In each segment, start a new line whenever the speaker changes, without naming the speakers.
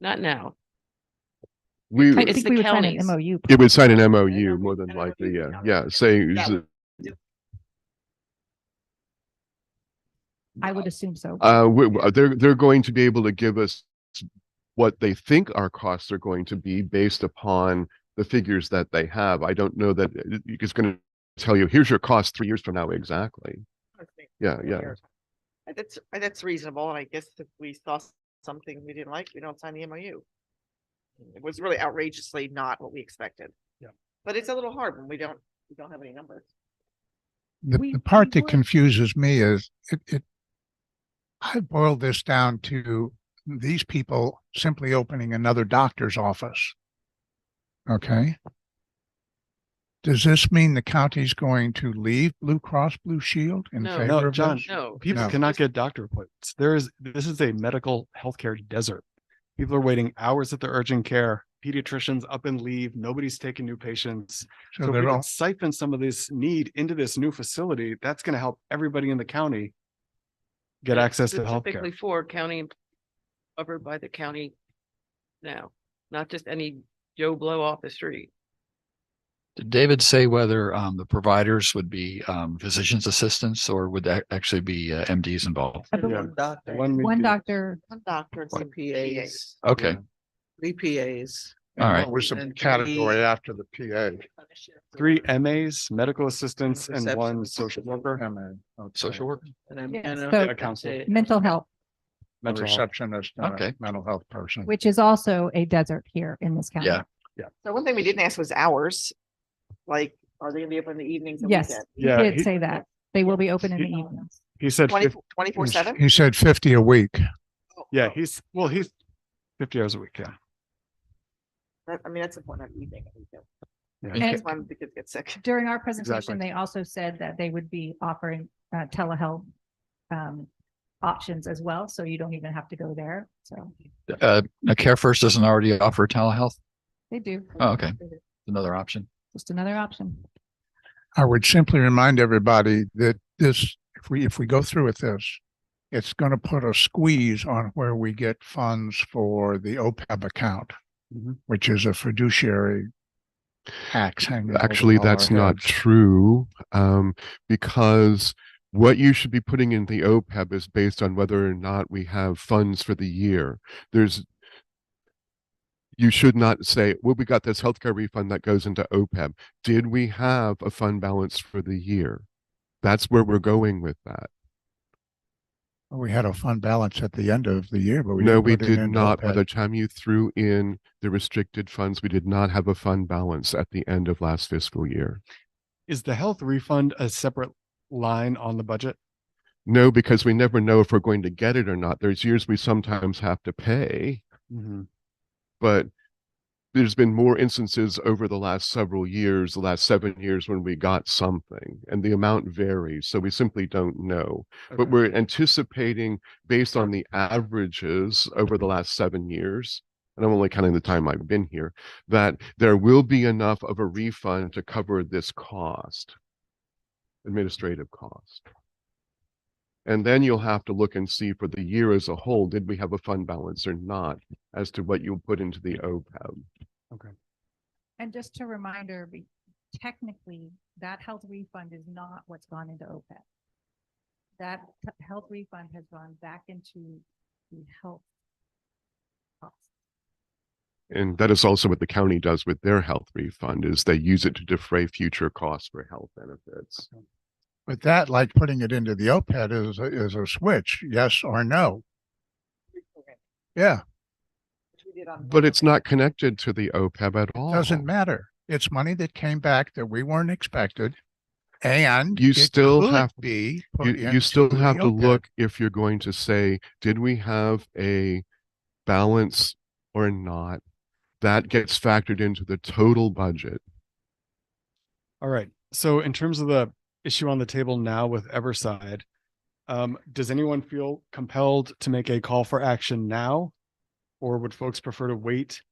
Not now.
We,
I-
it
It's
think
the
we would sign
counties.
an MOU.
would sign an
know,
MOU more than
an MOU,
likely, yeah,
yeah.
yeah, saying,
Yeah.
I would assume so.
uh, we- we- they're, they're going to be able to give us what they think our costs are going to be based upon the figures that they have. I don't know that it- it's going to tell you, here's your cost three years from now, exactly. Yeah, yeah.
Uh, That's, uh, that's reasonable, and I guess if we saw s- something we didn't like, we don't sign the MOU. It was really outrageously not what we expected.
Yeah.
But it's a little hard when we don't, we don't have any numbers.
The,
We-
the part
we
that
were-
confuses me is it, it. I boiled this down to these people simply opening another doctor's office. Okay. Does this mean the county's going to leave Blue Cross Blue Shield in
No.
favor
No,
of this?
John.
No.
People
No.
cannot get doctor appointments. There is, this is a medical healthcare desert. People are waiting hours at the urgent care, pediatricians up and leave, nobody's taking new patients.
So
So if we
they're all,
can siphon some of this need into this new facility, that's going to help everybody in the county get access to
Specifically
healthcare.
for county, em- covered by the county now, not just any Joe Blow off the street.
Did David say whether um the providers would be um physician's assistants or would that actually be uh, MDs involved?
I believe
doctor.
One
One doctor,
One doctor and some PAs.
Okay,
VPAs.
all right.
what was the
And
category
we-
after the PA?
Three MAs, medical assistants, and
Reception-
one social worker,
MA.
Social work.
Yeah, so-
a council.
mental health,
mental health.
Receptionist, and a
Okay.
mental health person.
which is also a desert here in this county.
Yeah.
So one thing we didn't ask was hours. Like, are they gonna be open in the evenings and
Yes.
weekends?
He
Yeah,
did
he-
say that. They will be open in the
he-
evenings.
He said,
Twenty,
fif-
twenty-four seven?
He said fifty a week.
yeah, he's, well, he's fifty hours a week, yeah.
I mean, that's important, I'm evening. and weekend.
Yeah.
And-
That's why the kids get sick.
During our presentation,
Exactly.
they also said that they would be offering uh, telehealth um, options as well, so you don't even have to go there. So
Uh, now Care First doesn't already offer telehealth.
they do,
Oh, okay. Another option.
just another option.
I would simply remind everybody that this, if we, if we go through with this, it's going to put a squeeze on where we get funds for the OPEB account,
Mm-hmm.
Mhm.
which is a fiduciary tax hanging. over
Actually,
all our
that's not
heads.
true, um, because what you should be putting in the OPEB is based on whether or not we have funds for the year. There's, you should not say, well, we got this healthcare refund that goes into OPEB. Did we have a fund balance for the year? That's where we're going with that.
We had a fund balance at the end of the year, but we.
No,
didn't
we
put it
did
in E
not. By
OPEB.
the time you threw in the restricted funds, we did not have a fund balance at the end of last fiscal year.
Is the health refund a separate line on the budget?
No, because we never know if we're going to get it or not. There's years we sometimes have to pay, but there's been more instances over the last several years, the last seven years, when we got something and the amount varies. So we simply don't know. But
Okay.
we're anticipating based on the averages over the last seven years. And I'm only counting the time I've been here, that there will be enough of a refund to cover this cost, administrative cost. And then you'll have to look and see for the year as a whole, did we have a fund balance or not as to what you'll put into the E OPEB?
And just a reminder, we- technically, that health refund is not what's gone into OPEB. That t- health refund has gone back into the health. costs.
And that is also what the county does with their health refund is they use it to defray future costs for health benefits.
But that, like putting it into the OPEB is, a- is a switch, yes or no. Yeah,
Which we did on
But it's not connected to the OPEB at all.
doesn't matter. It's money that came back that we weren't expected. And
You
it
still
could
have-
Be. put
You,
into
you still
the E
have to
OPEB.
look if you're going to say, did we have a balance or not? That gets factored into the total budget.
All right. So in terms of the issue on the table now with Everside, um, does anyone feel compelled to make a call for action now? Or would folks prefer to wait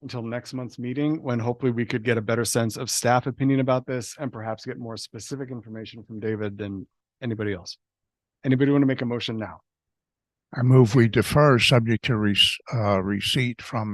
until next month's meeting when hopefully we could get a better sense of staff opinion about this and perhaps get more specific information from David than anybody else? Anybody want to make a motion now?
I move we defer subject to rec- uh, receipt from